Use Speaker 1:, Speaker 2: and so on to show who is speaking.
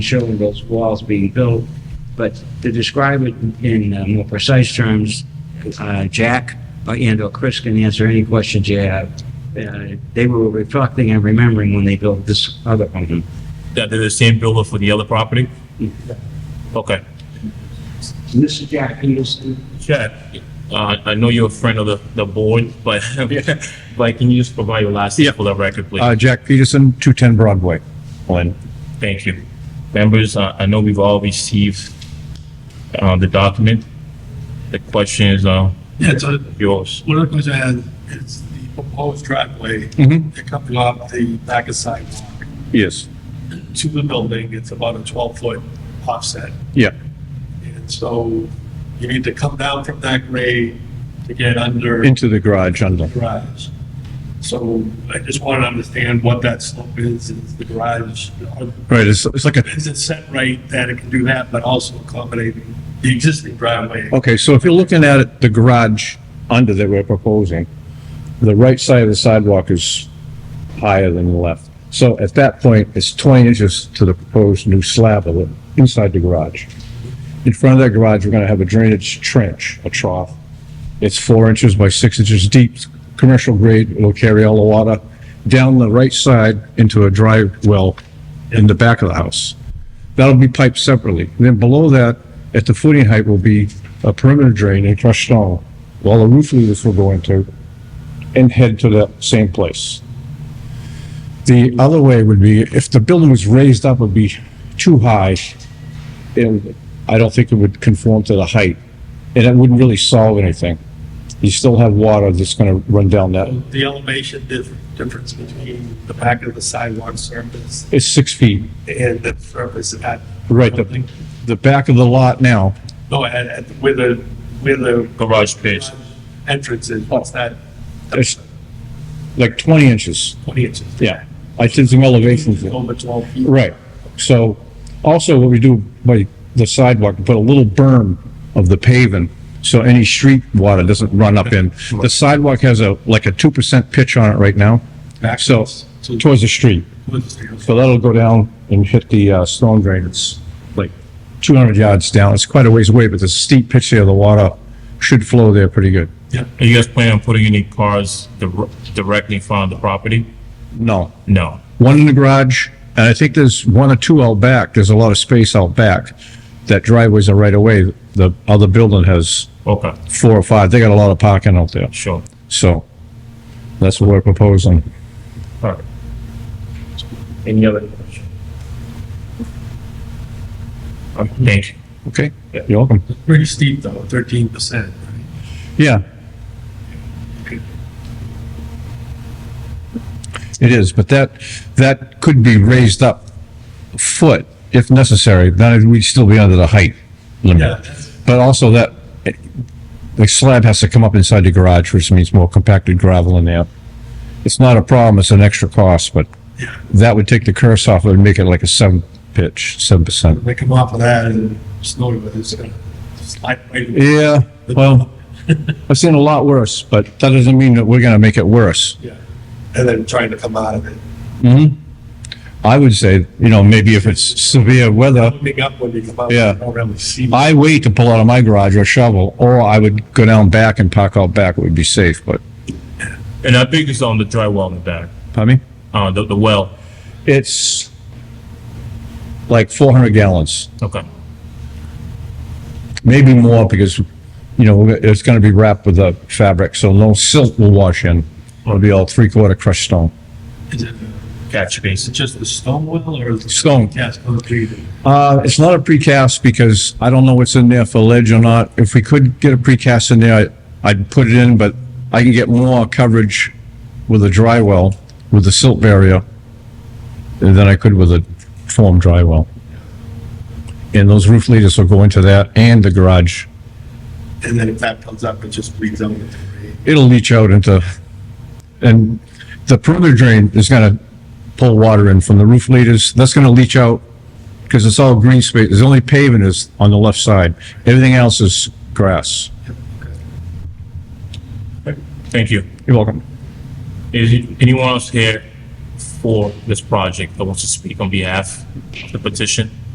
Speaker 1: showing those walls being built. But to describe it in uh, more precise terms, uh, Jack and/or Chris can answer any questions you have. Uh, They were reflecting and remembering when they built this other home.
Speaker 2: That they're the same builder for the other property? Okay.
Speaker 1: This is Jack Peterson.
Speaker 2: Chad, uh, I know you're a friend of the, the board, but, but can you just provide your last name for the record, please?
Speaker 3: Uh, Jack Peterson, 210 Broadway.
Speaker 2: Lynn, thank you. Members, uh, I know we've all received, uh, the document. The question is, uh,
Speaker 4: Yeah, so
Speaker 2: yours.
Speaker 4: one of the questions I had is the proposed driveway
Speaker 3: Mhm.
Speaker 4: that comes off the back of sidewalk
Speaker 3: Yes.
Speaker 4: to the building. It's about a twelve foot offset.
Speaker 3: Yeah.
Speaker 4: And so you need to come down from that grade to get under the
Speaker 3: Into the garage under.
Speaker 4: garage. So I just want to understand what that slope is, is the garage,
Speaker 3: Right, it's, it's like a,
Speaker 4: is it set right that it can do that, but also accommodating the existing driveway?
Speaker 3: okay, so if you're looking at it, the garage under that we're proposing, the right side of the sidewalk is higher than the left. So at that point, it's 20 inches to the proposed new slab of it, inside the garage. In front of that garage, we're gonna have a drainage trench, a trough. It's four inches by six inches deep, commercial grade, it'll carry all the water down the right side into a dry well in the back of the house. That'll be piped separately. Then below that, at the footing height will be a perimeter drain and crushed stone. All the roof leaders will go into and head to that same place. The other way would be, if the building was raised up, would be too high. And I don't think it would conform to the height, and it wouldn't really solve anything. You still have water that's gonna run down that,
Speaker 4: The elevation dif- difference between the back of the sidewalk surface
Speaker 3: it's six feet,
Speaker 4: and the surface at.
Speaker 3: right, the, the back of the lot now,
Speaker 4: No, at, at, where the, where the
Speaker 2: Garage space.
Speaker 4: entrance is, what's that,
Speaker 3: it's like twenty inches,
Speaker 4: twenty inches?
Speaker 3: yeah. I did some elevations.
Speaker 4: Over twelve feet.
Speaker 3: Right, so also what we do by the sidewalk, we put a little berm of the paving, so any street water doesn't run up in. The sidewalk has a, like a two percent pitch on it right now, so, towards the street. So that'll go down and hit the, uh, stone drain, it's like two hundred yards down, it's quite a ways away, but there's a steep pitch there, the water should flow there pretty good.
Speaker 2: Are you guys planning on putting any cars dir- directly in front of the property?
Speaker 3: No,
Speaker 2: No.
Speaker 3: one in the garage, and I think there's one or two out back. There's a lot of space out back. That driveway's a right away. The other building has
Speaker 2: Okay,
Speaker 3: four or five. They got a lot of parking out there.
Speaker 2: sure.
Speaker 3: So that's what we're proposing.
Speaker 2: All right. Any other questions? Um, Thank you.
Speaker 3: Okay? You're welcome.
Speaker 4: Pretty steep though, thirteen percent.
Speaker 3: Yeah. It is, but that, that could be raised up a foot if necessary. Then we'd still be under the height limit.
Speaker 4: Yeah, that's-
Speaker 3: But also that, the slab has to come up inside the garage, which means more compacted gravel in there. It's not a problem, it's an extra cost, but
Speaker 4: Yeah.
Speaker 3: that would take the curse off and make it like a seven pitch, seven percent.
Speaker 4: they come off of that and snow, it's gonna slide right.
Speaker 3: Yeah, well, I've seen a lot worse, but that doesn't mean that we're gonna make it worse.
Speaker 4: Yeah. And then trying to come out of it,
Speaker 3: I would say, you know, maybe if it's severe weather,
Speaker 4: opening up when you come out, you
Speaker 3: Yeah.
Speaker 4: don't really see. much.
Speaker 3: I wait to pull out of my garage or shovel, or I would go down back and park out back, it would be safe, but,
Speaker 2: And I think it's on the dry well in the back,
Speaker 3: pardon me?
Speaker 2: uh, the, the well.
Speaker 3: It's like four hundred gallons.
Speaker 2: Okay,
Speaker 3: maybe more because, you know, it's gonna be wrapped with a fabric, so no silt will wash in. It'll be all three-quarter crushed stone.
Speaker 4: Is it,
Speaker 2: catch
Speaker 4: is
Speaker 2: basin.
Speaker 4: it just the stone wall or is it?
Speaker 3: Stone.
Speaker 4: Yes, concrete.
Speaker 3: Uh, it's not a precast because I don't know what's in there for ledge or not. If we could get a precast in there, I- I'd put it in, but I can get more coverage with a dry well, with a silt barrier, than I could with a form dry well. And those roof leaders will go into that and the garage.
Speaker 4: And then if that comes up, it just bleeds out into the grade.
Speaker 3: it'll leach out into, and the perimeter drain is gonna pull water in from the roof leaders, that's gonna leach out, because it's all green space, there's only pavement is on the left side, everything else is grass.
Speaker 2: Thank you.
Speaker 3: You're welcome.
Speaker 2: Is anyone else here for this project that wants to speak on behalf of the petition?